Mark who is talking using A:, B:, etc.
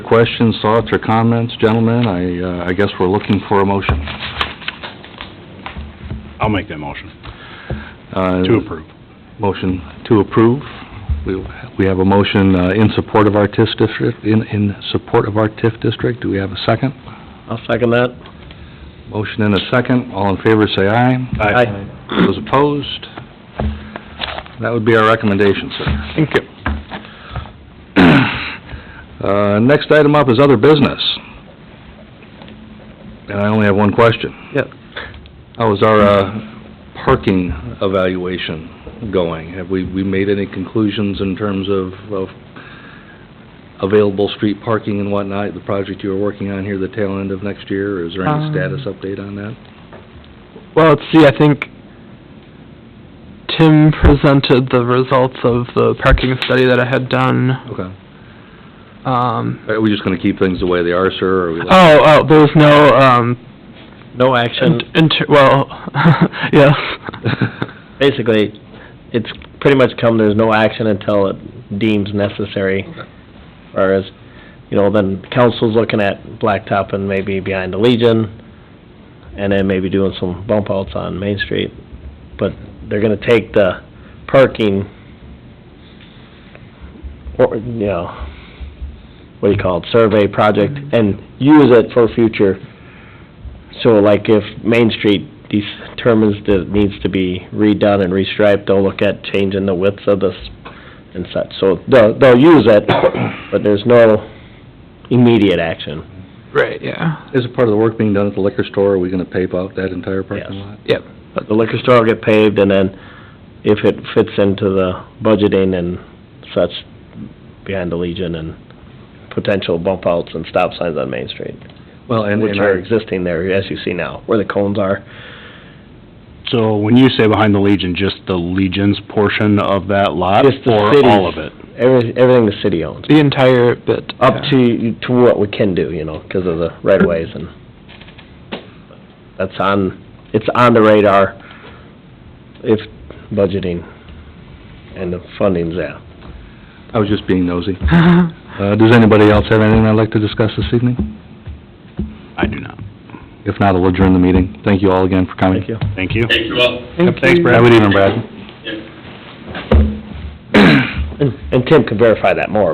A: questions, thoughts, or comments, gentlemen, I, uh, I guess we're looking for a motion.
B: I'll make that motion
A: Uh,
B: to approve.
A: Motion to approve. We, we have a motion uh, in support of our TIF district, in, in support of our TIF district. Do we have a second?
C: I'll second that.
A: Motion and a second. All in favor, say aye. Those opposed? That would be our recommendation, sir.
C: Thank you.
A: Uh, next item up is other business. And I only have one question.
C: Yep.
A: How Oh, is our, uh, parking evaluation going? Have we, we made any conclusions in terms of, of available street parking and whatnot, the project you were working on here, the tail end of next year? Is there any
D: Um.
A: status update on that?
D: Well, let's see, I think Tim presented the results of the parking study that I had done.
A: Okay.
D: Um,
A: Are we just gonna keep things the way they are, sir, or are we...
D: oh, oh, there was no, um,
C: No action.
D: in- inter, well, yes.
C: Basically, it's pretty much come, there's no action until it deems necessary. Whereas, you know, then council's looking at Blacktop and maybe behind the Legion, and then maybe doing some bump outs on Main Street. But they're gonna take the parking, or, you know, what do you call it, survey project, and use it for future So like if Main Street determines that it needs to be redone and restriped, they'll look at changing the width of this and such. So they'll, they'll use it, but there's no immediate action.
D: Right, yeah.
A: Is it part of the work being done at the liquor store, are we gonna pave out that entire parking
C: Yes.
A: lot?
C: But The liquor store will get paved and then if it fits into the budgeting and such behind the Legion and potential bump outs and stop signs on Main Street,
A: Well, and,
C: which
A: and
C: are
A: our,
C: existing there as you see now, where the cones are.
B: So when you say behind the Legion, just the Legion's portion of that lot?
C: Just the
B: Or
C: city's.
B: all of it?
C: Every, everything the city owns.
D: The entire bit.
C: up
D: yeah.
C: to, to what we can do, you know, because of the right of ways and that's on, it's on the radar if budgeting and the funding's there.
A: I was just being nosy. Uh, does anybody else have anything I'd like to discuss this evening?
B: I do not.
A: If not, I'll adjourn the meeting. Thank you all again for coming.
C: Thank you.
B: Thank you.
E: Thank you all.
D: Thank
B: Thanks,
D: you.
B: Brad.
A: Have a good evening, Brad.
E: Yep.
C: And and Tim can verify that more,